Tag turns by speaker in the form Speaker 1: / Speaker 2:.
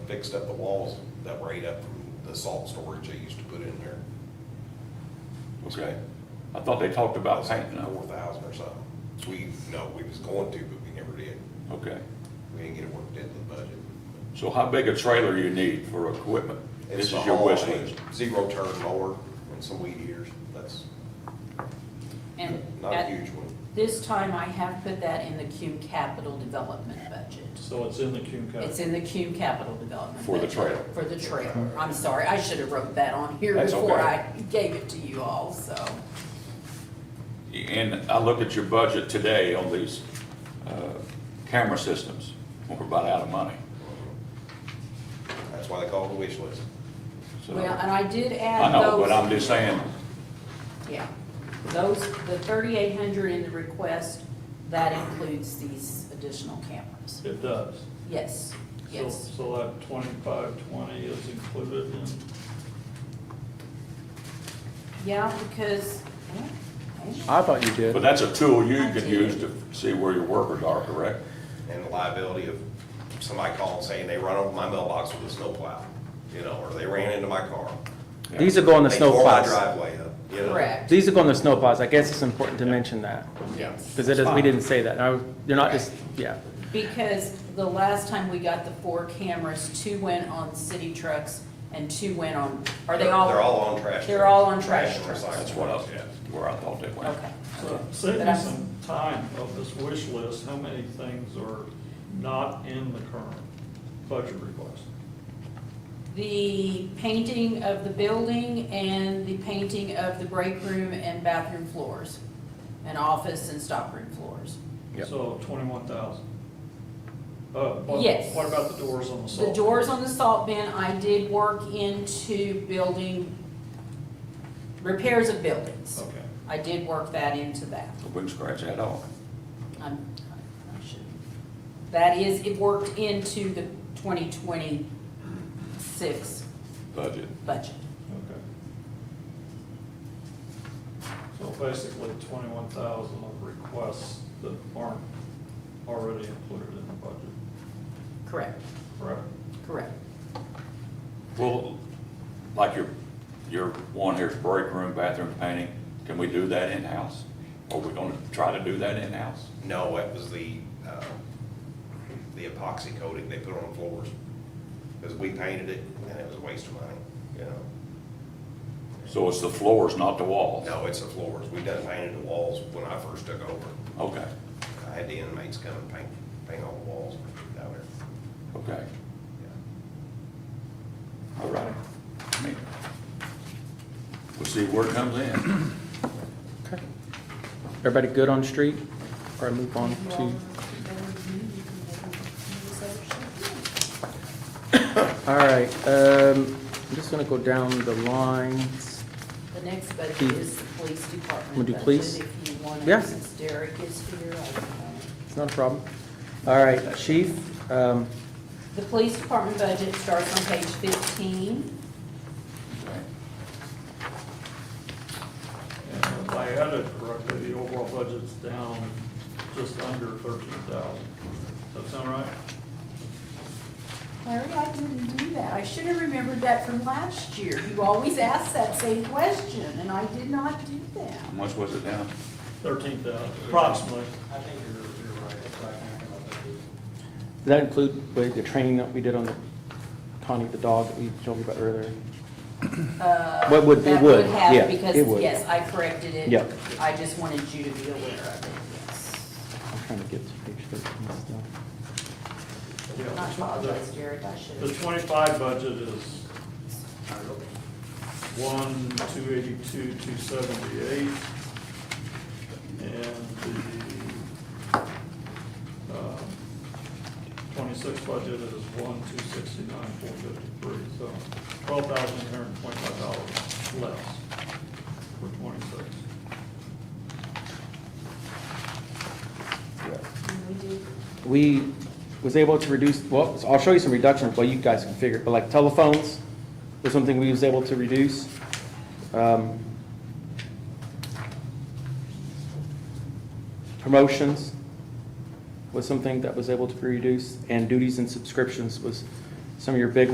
Speaker 1: fixed up the walls that were ate up from the salt storage they used to put in there.
Speaker 2: Okay. I thought they talked about painting
Speaker 1: Four
Speaker 2: them.
Speaker 1: thousand or something. So we, no, we was going to, but we never did.
Speaker 2: Okay.
Speaker 1: We didn't get it worked into the budget.
Speaker 2: So how big a trailer you need for equipment? This
Speaker 1: It's a
Speaker 2: is your wish
Speaker 1: haul,
Speaker 2: list.
Speaker 1: Zero turn mower and some weed eaters. That's
Speaker 3: And
Speaker 1: not a
Speaker 3: at
Speaker 1: huge one.
Speaker 3: this time, I have put that in the cume capital development budget.
Speaker 4: So it's in the Cume County.
Speaker 3: It's in the cume capital development.
Speaker 2: For the
Speaker 3: budget.
Speaker 2: trailer.
Speaker 3: For the trailer. I'm sorry, I should have wrote that on here
Speaker 2: That's
Speaker 3: before
Speaker 2: okay.
Speaker 3: I gave it to you all, so.
Speaker 2: And I look at your budget today on these uh, camera systems. We're about out of money.
Speaker 1: That's why they call it a wish list.
Speaker 2: So-
Speaker 3: Well, and I did add
Speaker 2: I know,
Speaker 3: those-
Speaker 2: but I'm just saying,
Speaker 3: Yeah, those, the thirty-eight hundred in the request, that includes these additional cameras.
Speaker 4: It does.
Speaker 3: Yes,
Speaker 4: So-
Speaker 3: yes.
Speaker 4: So that twenty-five twenty is included in,
Speaker 3: Yeah, because, well,
Speaker 5: I thought you did.
Speaker 2: but that's a tool you can use to see where your workers are, correct?
Speaker 1: and the liability of somebody calling saying they run over my mailbox with a snowplow, you know, or they ran into my car.
Speaker 5: These are going to
Speaker 1: They tore my
Speaker 5: snowplows.
Speaker 1: driveway up, you know.
Speaker 3: correct.
Speaker 5: These are going to snowplows. I guess it's important to mention that,
Speaker 3: Yes.
Speaker 5: because it is, we didn't say that. I- You're not just, yeah.
Speaker 3: Because the last time we got the four cameras, two went on city trucks and two went on, are they all?
Speaker 1: They're all on trash.
Speaker 3: They're
Speaker 1: trucks.
Speaker 3: all on trash
Speaker 1: and
Speaker 3: trucks.
Speaker 1: recycling
Speaker 2: That's what I,
Speaker 1: trucks, yeah.
Speaker 2: where I thought they went.
Speaker 3: Okay.
Speaker 4: so save
Speaker 3: But
Speaker 4: me
Speaker 3: I'm-
Speaker 4: some time of this wish list, how many things are not in the current budget request?
Speaker 3: The painting of the building and the painting of the break room and bathroom floors, and office and stockroom floors.
Speaker 5: Yep.
Speaker 4: So twenty-one thousand. Uh, what,
Speaker 3: Yes.
Speaker 4: what about the doors on the salt?
Speaker 3: The doors on the salt bin, I did work into building, repairs of buildings.
Speaker 1: Oh.
Speaker 4: Okay.
Speaker 3: I did work that into that.
Speaker 2: We can scratch that off.
Speaker 3: I'm, I should, that is, it worked into the twenty twenty-six
Speaker 2: Budget.
Speaker 3: budget.
Speaker 4: Okay. So basically twenty-one thousand of requests that aren't already included in the budget,
Speaker 3: Correct,
Speaker 4: correct?
Speaker 3: correct.
Speaker 2: Well, like your, your one here's break room, bathroom painting, can we do that in-house? Are we gonna try to do that in-house?
Speaker 1: No, it was the, uh, the epoxy coating they put on floors. Because we painted it and it was a waste of money, you know.
Speaker 2: So it's the floors, not the walls?
Speaker 1: No, it's the floors. We done painted the walls when I first took over.
Speaker 2: Okay,
Speaker 1: I had the inmates come and paint, paint all the walls down there.
Speaker 2: okay,
Speaker 1: Yeah.
Speaker 2: all right. I mean, We'll see where it comes in.
Speaker 5: Okay. Everybody good on street? Or I move on to, all right, um, I'm just gonna go down the lines.
Speaker 3: The next budget is the police department.
Speaker 5: Hmm. Wanna do
Speaker 3: budget,
Speaker 5: police?
Speaker 3: If you want
Speaker 5: Yeah.
Speaker 3: to, since Derek is here, I don't know.
Speaker 5: It's not a problem. All right, chief, um,
Speaker 3: The police department budget starts on page fifteen.
Speaker 2: Okay.
Speaker 4: And if I had it correctly, the overall budget's down just under thirteen thousand. Does that sound right?
Speaker 3: Larry, I didn't do that. I should have remembered that from last year. You always ask that same question, and I did not do that.
Speaker 2: How much was it down?
Speaker 4: Thirteen thousand, approximately.
Speaker 6: I think you're, you're right, it's right now about that.
Speaker 5: does that include the the training that we did on the Connie, the dog that we told you about earlier?
Speaker 3: Uh,
Speaker 5: What would- it
Speaker 3: that
Speaker 5: would,
Speaker 3: have-
Speaker 5: yeah, it
Speaker 3: Because,
Speaker 5: would.
Speaker 3: yes, I corrected it.
Speaker 5: Yeah.
Speaker 3: I just wanted you to be aware of it, yes.
Speaker 5: I'm trying to get to page thirteen still.
Speaker 4: Yeah, the
Speaker 3: Not
Speaker 4: tw-
Speaker 3: apologize, Derek, I should
Speaker 4: The the
Speaker 3: have.
Speaker 4: twenty-five budget is one, two eighty-two, two seventy-eight. And the, um, twenty-six budget is one, two sixty-nine, four fifty-three, so twelve thousand eight hundred and twenty-five dollars less for twenty-six.
Speaker 3: We did-
Speaker 5: we was able to reduce, well, I'll show you some reductions, well, you guys can figure, it, but like telephones was something we was able to reduce. Um, Promotions was something that was able to be reduced, and duties and subscriptions was some of your big